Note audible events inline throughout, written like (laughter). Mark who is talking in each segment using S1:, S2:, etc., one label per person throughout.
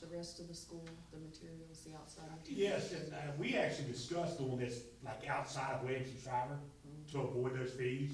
S1: the rest of the school, the materials, the outside materials?
S2: Yes, and, uh, we actually discussed doing this, like outside of Williams and Shriver, to avoid those fees,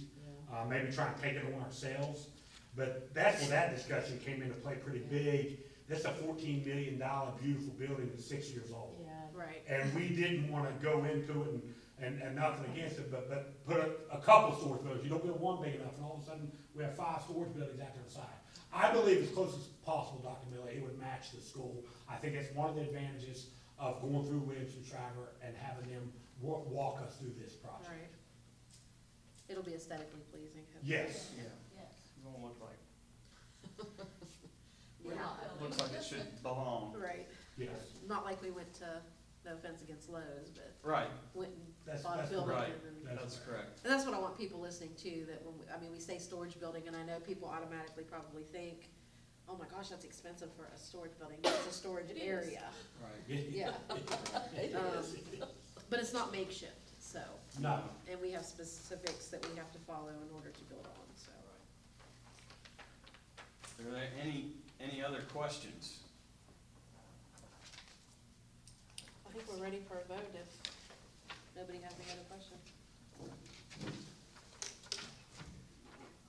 S1: Yeah.
S2: uh, maybe try and take it on ourselves. But that's where that discussion came into play pretty big. That's a fourteen million dollar beautiful building that's six years old.
S1: Yeah,
S3: Right.
S2: And we didn't wanna go into it and, and, and nothing against it, but, but put a, a couple storage buildings, you don't build one big enough, and all of a sudden, we have five storage buildings out there inside. I believe as close as possible, Dr. Millie, it would match the school, I think that's one of the advantages of going through Williams and Shriver and having them wa- walk us through this project.
S3: Right. It'll be aesthetically pleasing. hopefully.
S2: Yes,
S4: Yeah,
S5: Yes.
S4: it won't look like,
S1: we're
S3: Yeah.
S1: not,
S4: looks like it should belong.
S3: Right.
S2: yes,
S3: Not like we went to, no offense against Lowe's, but
S4: Right,
S3: went and
S2: That's-
S3: bought a
S2: that's
S3: building.
S4: correct.
S3: and then-
S2: That's
S4: that's correct.
S3: And that's what I want people listening to, that when, we- I mean, we say storage building, and I know people automatically probably think, oh my gosh, that's expensive for a storage building, but it's a storage
S1: It is.
S3: area.
S4: Right.
S3: Yeah,
S1: it
S3: (laughs) Um,
S1: is.
S3: but it's not makeshift, so,
S2: (laughs) no,
S3: and we have specifics that we have to follow in order to build on, so.
S4: Are there any, any other questions?
S3: I think we're ready for a vote if nobody has any other questions.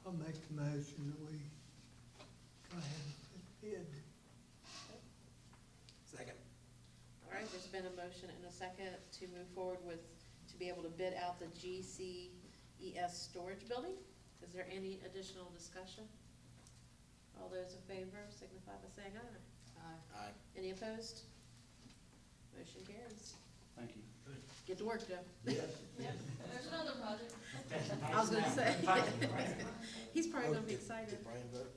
S6: I'll make the motion that we go ahead and bid.
S7: Second.
S3: All right, there's been a motion and a second to move forward with, to be able to bid out the GCES storage building. Is there any additional discussion? All those in favor signify by saying aye.
S1: Aye.
S7: Aye.
S3: Any opposed? Motion carries.
S4: Thank you.
S3: Get to work, Joe.
S2: yes.
S5: Yep, there's another project.
S3: I was gonna say.
S2: Right.
S3: (laughs) He's probably gonna be
S7: Oh, did-
S3: excited.
S7: Did Brian vote?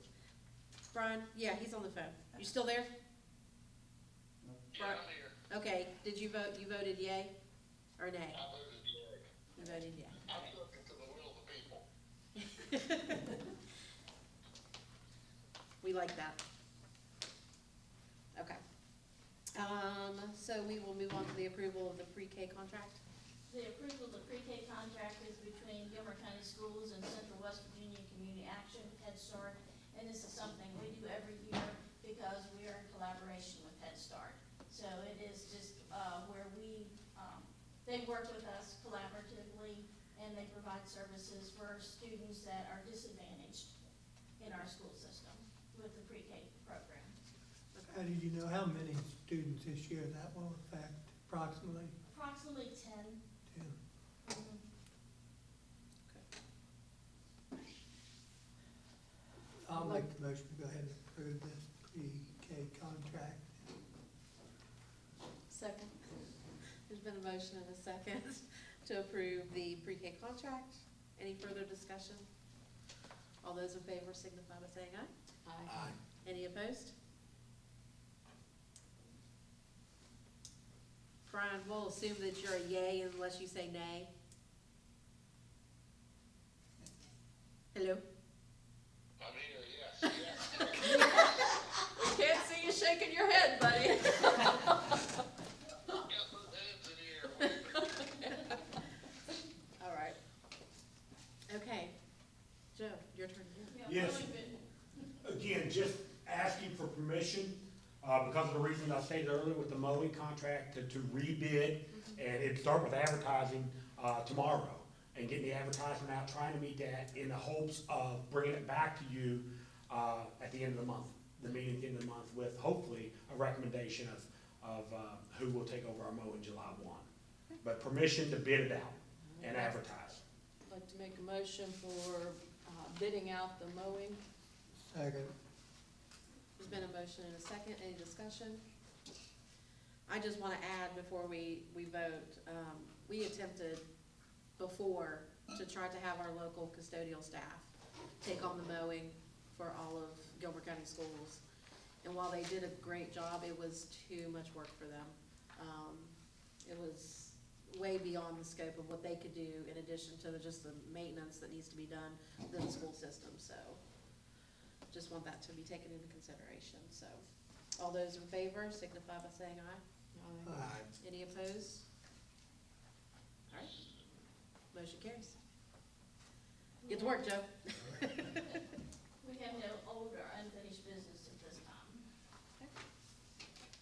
S3: Brian, yeah, he's on the phone. You still there? (laughs)
S8: Yeah, I'm here. (laughs)
S3: Okay, did you vote, you voted yay or nay?
S8: I voted yea.
S3: You voted yay.
S8: I'm subject to the will of the people.
S3: (laughs) We like that. Okay. Um, so we will move on to the approval of the pre-K contract.
S5: The approval of the pre-K contract is between Gilmer County Schools and Central West Virginia Community Action, Head Start. And this is something we do every year because we are in collaboration with Head Start. So it is just, uh, where we, um, they work with us collaboratively and they provide services for students that are disadvantaged in our school system with the pre-K program.
S6: How do you know how many students this year that will affect approximately?
S5: Approximately ten. um,
S6: Tim? I'll make the motion to go ahead and approve this pre-K contract.
S3: Second. There's been a motion and a second (laughs) to approve the pre-K contract. Any further discussion? All those in favor signify by saying aye.
S1: Aye.
S7: Aye.
S3: Any opposed? Brian, we'll assume that you're a yay unless you say nay. Hello?
S8: I'm here, yes, yes.
S3: We can't see you shaking your head, buddy. (laughs)
S8: Got both hands in the air.
S3: All right. Okay. Joe, your turn.
S5: Yeah,
S2: Yes.
S5: really good.
S2: again, just asking for permission, uh, because of the reasons I stated earlier with the mowing contract to, to rebid. And it'd start with advertising, uh, tomorrow and getting the advertisement out, trying to meet that in the hopes of bringing it back to you, uh, at the end of the month. The meeting at the end of the month with hopefully a recommendation of, of, uh, who will take over our mowing July one. But permission to bid it out and
S1: Mm-hmm.
S2: advertise.
S1: I'd like to make a motion for uh, bidding out the mowing.
S6: Second.
S3: There's been a motion and a second. Any discussion? I just want to add before we, we vote, um, we attempted before to try to have our local custodial staff take on the mowing for all of Gilbert County schools. And while they did a great job, it was too much work for them. Um, it was way beyond the scope of what they could do in addition to the, just the maintenance that needs to be done within the school system, so. Just want that to be taken into consideration, so. All those in favor signify by saying
S1: Aye.
S3: aye.
S6: Aye.
S3: Any opposed? All right. Motion carries. Get to work, Joe.
S5: We have no older